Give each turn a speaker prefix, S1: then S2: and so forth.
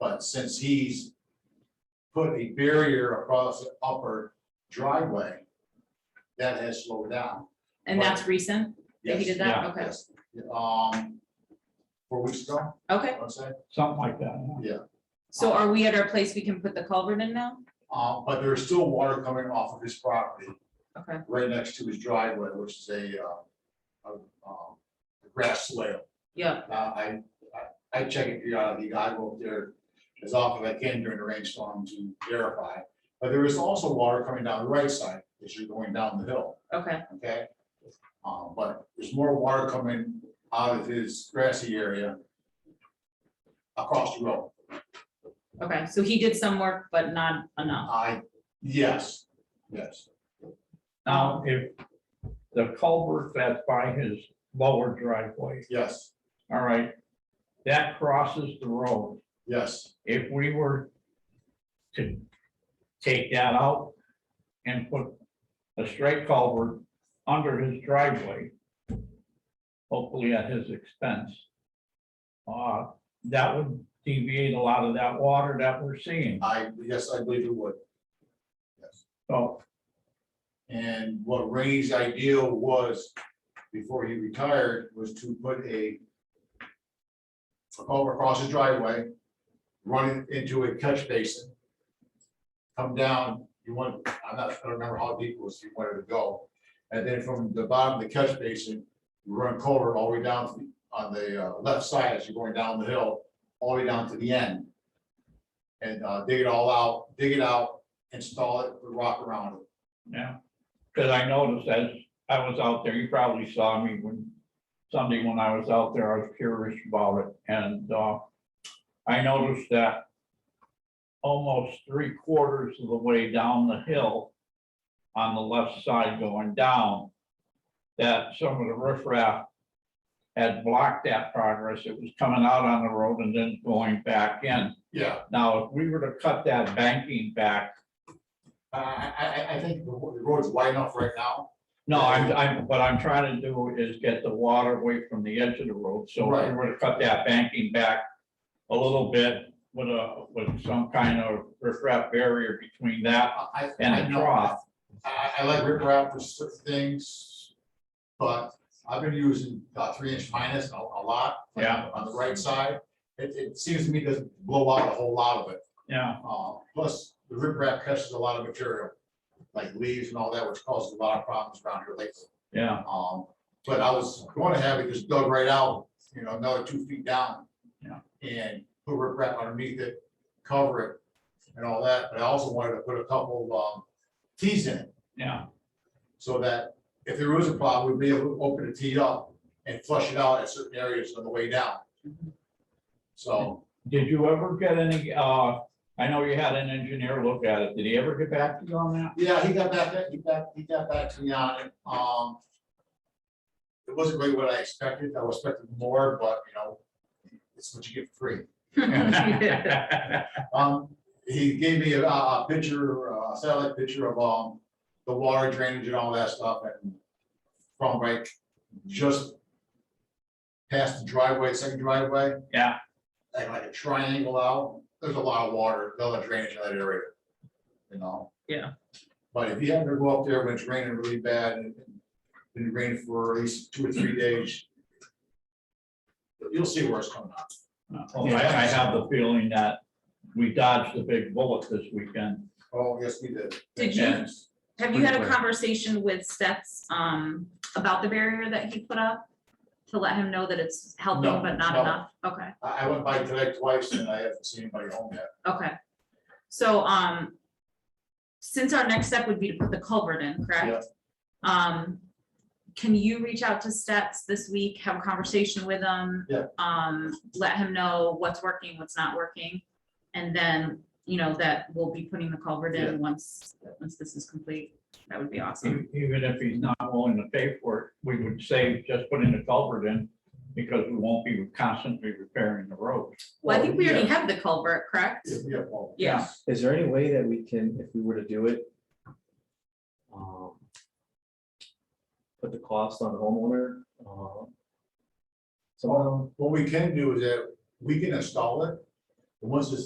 S1: but since he's put a barrier across the upper driveway, that has slowed down.
S2: And that's recent? that
S1: Yes,
S2: He did that?
S3: yeah,
S2: Okay,
S1: yes. Um, four weeks ago,
S2: okay.
S1: I'd say,
S3: something like that. huh?
S1: yeah.
S2: So are we at our place we can put the culvert in now?
S1: Uh, but there's still water coming off of his property,
S2: Okay,
S1: right next to his driveway, which is a, uh, a, um, grass swale.
S2: yeah,
S1: Uh, I, I, I check it periodically, I go up there as often as I can during the rainstorm to verify. But there is also water coming down the right side as you're going down the hill,
S2: okay,
S1: okay? Uh, but there's more water coming out of his grassy area across the road.
S2: okay. So he did some work, but not enough.
S1: I, yes, yes,
S3: Now, if the culvert that's by his lower driveway,
S1: yes,
S3: all right, that crosses the road.
S1: yes.
S3: If we were to take that out and put a straight culvert under his driveway, hopefully at his expense, uh, that would deviate a lot of that water that we're seeing.
S1: I, yes, I believe it would. Yes.
S3: So,
S1: And what Ray's ideal was, before he retired, was to put a a culvert across his driveway, run it into a catch basin, come down, you want, I'm not, I don't remember how deep it was, he wanted to go. And then from the bottom of the catch basin, you run culvert all the way down to the, on the uh, left side as you're going down the hill, all the way down to the end. And uh, dig it all out, dig it out, install it, put rock around it.
S3: Yeah, because I noticed as I was out there, you probably saw me when, Sunday when I was out there, I was curious about it, and, uh, I noticed that almost three quarters of the way down the hill, on the left side going down, that some of the riffraff had blocked that progress, it was coming out on the road and then going back in.
S1: Yeah,
S3: Now, if we were to cut that banking back,
S1: I, I, I- I think the wa- the road's wide enough right now.
S3: No, I'm, I'm, what I'm trying to do is get the water away from the edge of the road, so if we were to cut that banking back a little bit with a, with some kind of riprap barrier between that
S1: I- I, I
S3: and the
S1: know,
S3: trough.
S1: I, I like rip wrap for certain things, but I've been using uh, three inch minus a, a lot. like,
S3: Yeah.
S1: On the right side, it, it seems to me doesn't blow out a whole lot of it.
S3: Yeah,
S1: Uh, plus, the rip wrap catches a lot of material, like leaves and all that, which causes a lot of problems around here lately.
S3: yeah,
S1: Um, but I was going to have it just dug right out, you know, another two feet down.
S3: Yeah.
S1: And put riprap underneath it, cover it and all that, but I also wanted to put a couple of, um, tees in it.
S3: yeah,
S1: So that if there was a problem, we'd be able to open a tee up and flush it out at certain areas on the way down. So,
S3: did you ever get any, uh, I know you had an engineer look at it, did he ever get back to you on that?
S1: yeah, he got back, he got, he got back to me on it, um. It wasn't really what I expected, I was expecting more, but you know, it's what you get for free. Um, he gave me a, a picture, a satellite picture of, um, the water drainage and all that stuff and from like just past the driveway, second driveway,
S3: Yeah,
S1: and like a triangle out, there's a lot of water, a lot of drainage in that area, you know?
S2: Yeah.
S1: But if you happen to go up there when it's raining really bad and it's been raining for at least two or three days, you'll see where it's coming out.
S3: Oh, I, I have the feeling that we dodged a big bullet this weekend.
S1: Oh, yes, we did.
S2: Did you-
S1: Yes.
S2: Have you had a
S3: Right.
S2: conversation with Seth's, um, about the barrier that he put up? To let him know that it's
S1: No,
S2: helping but not
S1: no.
S2: enough? Okay,
S1: I, I went by today twice and I haven't seen anybody home yet.
S2: okay. So, um, since our next step would be to put the culvert in, correct? Um, can you reach out to Stats this week, have a conversation with him?
S1: Yeah.
S2: Um, let him know what's working, what's not working, and then, you know, that we'll be putting the culvert
S1: Yeah.
S2: in once, once this is complete. That would be
S1: Mm-hmm.
S2: awesome.
S3: E- Even if he's not willing to pay for it, we would save just putting the culvert in because we won't be constantly repairing the road.
S2: Well, I think we already
S1: yeah.
S2: have the culvert, correct?
S1: Yeah, yeah, well,
S2: Yeah,
S4: Is there any way that we can, if we were to do it? um, Put the cost on the homeowner? uh, So.
S1: What we can do is that we can install it. and Once it's